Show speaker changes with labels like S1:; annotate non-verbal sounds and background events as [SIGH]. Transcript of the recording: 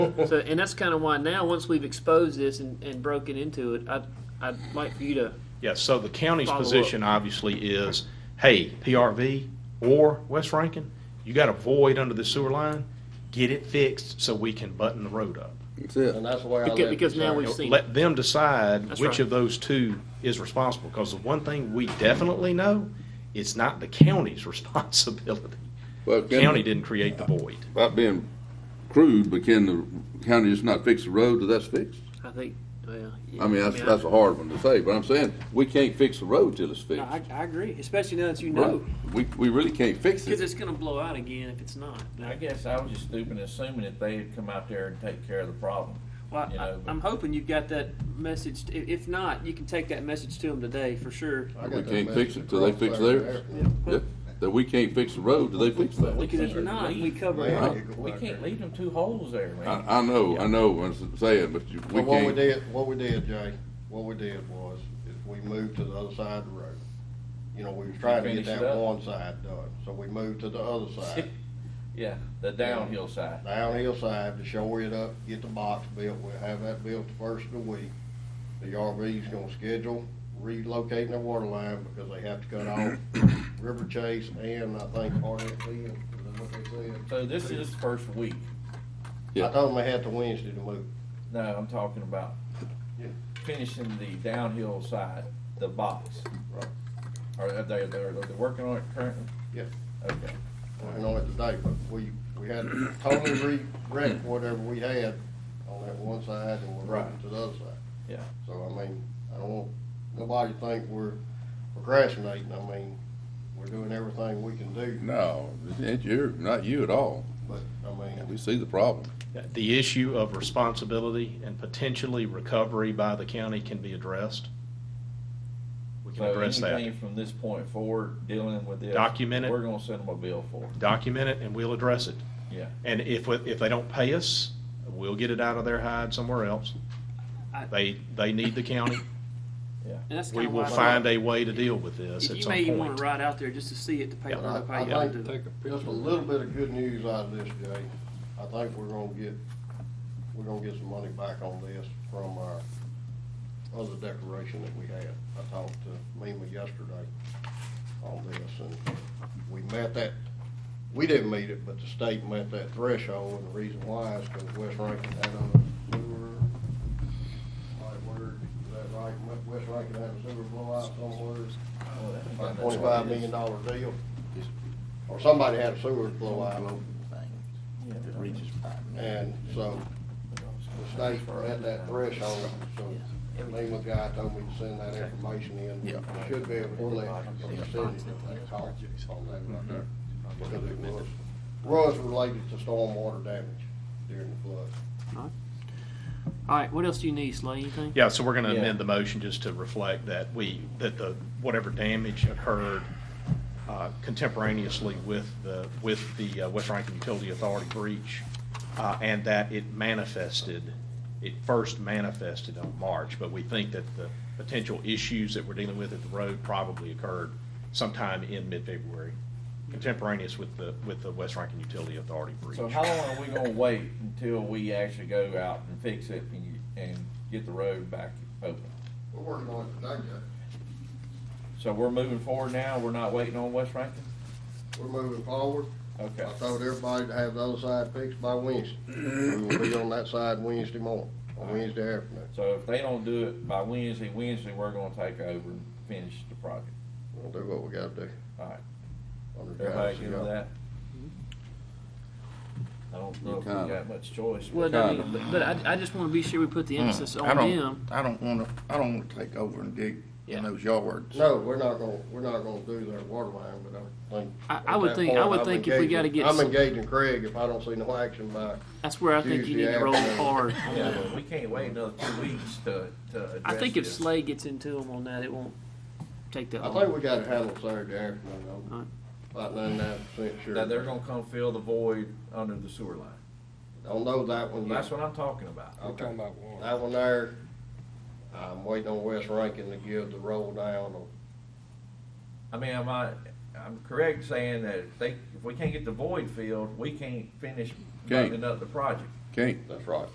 S1: so, and that's kind of why now, once we've exposed this and, and broken into it, I'd, I'd like for you to,
S2: Yeah, so the county's
S1: Follow up.
S2: position obviously is, hey, PRV or West Rankin, you got a void under the sewer line, get it fixed so we can button the road up.
S3: That's it.
S1: uh,
S4: And that's where I
S1: Because-
S4: left it.
S1: because now
S4: sir.
S1: we've seen-
S2: Let them decide
S1: That's
S2: which
S1: right.
S2: of those two is responsible, because the one thing we definitely know, it's not the county's [LAUGHS] responsibility.
S3: Well,
S2: The
S3: can-
S2: County didn't create the void.
S3: About being crude, but can the county just not fix the road till that's fixed?
S1: I think, well. yeah,
S3: I mean, that's, that's a hard one to say, but I'm saying, we can't fix the road till it's
S1: No,
S3: fixed.
S1: I, I agree, especially now that you
S3: Right.
S1: know,
S3: We, we really can't fix
S1: because
S3: it.
S1: it's gonna blow out again if it's not. But
S5: I guess I was just stupid assuming that they would come out there and take care of the problem.
S1: Well,
S5: you
S1: I,
S5: know, but-
S1: I'm hoping you've got that message. If if not, you can take that message to them today for sure.
S4: I got
S3: We
S4: that
S3: can't fix
S4: message
S3: it till they
S4: across
S3: fix
S4: there.
S3: theirs. Yeah, That we can't fix the road till they fix that.
S1: Because if not, we cover it
S4: Man,
S1: up.
S4: you go
S5: We
S4: out
S5: can't
S4: there.
S5: leave them two holes there, man.
S2: Uh-huh.
S3: I, I know, I know what I'm saying, but you- we
S4: Well, what we
S3: can't.
S4: did, what we did, Jay, what we did was, is we moved to the other side of the road. You know, we was trying to get
S5: Finish it
S4: that
S5: up.
S4: one side done, so we moved to the other side,
S5: [LAUGHS] Yeah, the downhill side.
S4: downhill side to shore it up, get the box built, we'll have that built the first of the week. The RV's gonna schedule relocating their water line because they have to cut off River Chase and I think RFP, is that what they said?
S5: So this is the first week.
S3: Yeah.
S4: I told them they had to Wednesday to move.
S5: No, I'm talking about
S4: Yeah.
S5: finishing the downhill side, the box.
S4: Right.
S5: Are are they, they're, are they working on it currently?
S4: Yeah.
S5: Okay.
S4: working on it today, but we, we had to totally wrecked whatever we had on that one side and we're right to the other side.
S5: Yeah.
S4: So, I mean, I don't want nobody to think we're procrastinating, I mean, we're doing everything we can do,
S3: No, it's you, not you at all.
S4: but, I mean,
S3: We see the problem.
S2: The issue of responsibility and potentially recovery by the county can be addressed. We can
S5: So
S2: address that.
S5: anything from this point forward, dealing with this.
S2: Document it.
S5: We're gonna send them a bill for it.
S2: Document it and we'll address it.
S5: Yeah.
S2: And if, we- if they don't pay us, we'll get it out of their hide somewhere else.
S1: I-
S2: They, they need the county.
S1: And that's
S2: We
S1: kind of
S2: will
S1: why.
S2: find a way to deal with this at
S1: You
S2: some
S1: may even want
S2: point.
S1: to ride out there just to see it to pay
S2: Yeah.
S1: for
S4: I,
S1: the pay.
S4: I
S1: to
S4: think,
S1: do it.
S4: just a little bit of good news out of this, Jay, I think we're gonna get, we're gonna get some money back on this from our other declaration that we had. I talked to Mima yesterday on this, and we met that, we didn't meet it, but the state met that threshold, and the reason why is because West Rankin had a sewer, right word, is that right? West Rankin had a sewer blowout somewhere, like twenty-five million dollar deal, or somebody had a sewer blowout, and so the state were at that threshold, so Lima guy told me to send that information in. We Should be able to collect from the city that cost on that right there. Because it was, was related to stormwater damage during the flood.
S1: All right, what else do you need, Slay? Anything?
S2: Yeah, so we're gonna
S5: Yeah.
S2: amend the motion just to reflect that we, that the, whatever damage occurred uh, contemporaneously with the, with the uh, West Rankin Utility Authority breach, uh, and that it manifested, it first manifested on March, but we think that the potential issues that we're dealing with at the road probably occurred sometime in mid-February, contemporaneous with the, with the West Rankin Utility Authority breach.
S5: So how long are we gonna wait until we actually go out and fix it and, and get the road back open?
S4: We're working on it today, Judge.
S5: So we're moving forward now, we're not waiting on West Rankin?
S4: We're moving forward.
S5: Okay.
S4: I told everybody to have the other side fixed by Wednesday. We will be on that side Wednesday morning, or Wednesday afternoon.
S5: So if they don't do it by Wednesday, Wednesday, we're gonna take over and finish the project.
S4: We'll do what we gotta do.
S5: All right,
S4: under the
S5: everybody
S4: guidance of
S5: good with
S4: God.
S5: that? I don't know if we
S3: Kinda.
S5: got much choice. but-
S1: Well, I mean, but I, I just want to be sure we put the emphasis
S6: Uh, mm, I
S1: on
S6: don't,
S1: them.
S6: I don't wanna, I don't wanna take over and dig in
S1: Yeah.
S6: those yards.
S4: No, we're not gonna, we're not gonna do their water line, but I think.
S1: I- I would
S4: at that
S1: think- I
S4: point,
S1: would
S4: I'm
S1: think if we
S4: engaging-
S1: gotta get
S4: I'm
S1: some-
S4: engaging Craig if I don't see no action by,
S1: That's where I think you need
S4: Tuesday
S1: to roll
S4: afternoon.
S1: hard.
S5: Yeah, but we can't wait another two weeks to, to address
S1: I think if
S5: this.
S1: Slay gets into them on that, it won't take that
S4: I
S1: long.
S4: think we gotta handle Saturday afternoon,
S1: Alright.
S4: I'm about ninety-nine percent sure.
S5: Now, they're gonna come fill the void under the sewer line.
S4: Don't know that one
S5: That's
S4: yet.
S5: what I'm talking about.
S4: Okay. That one there, I'm waiting on West Rankin to give the roll down on.
S5: I mean, am I, I'm correct saying that if they, if we can't get the void filled, we can't finish
S3: Can't.
S5: buttoning up the project.
S6: Okay.
S4: That's right.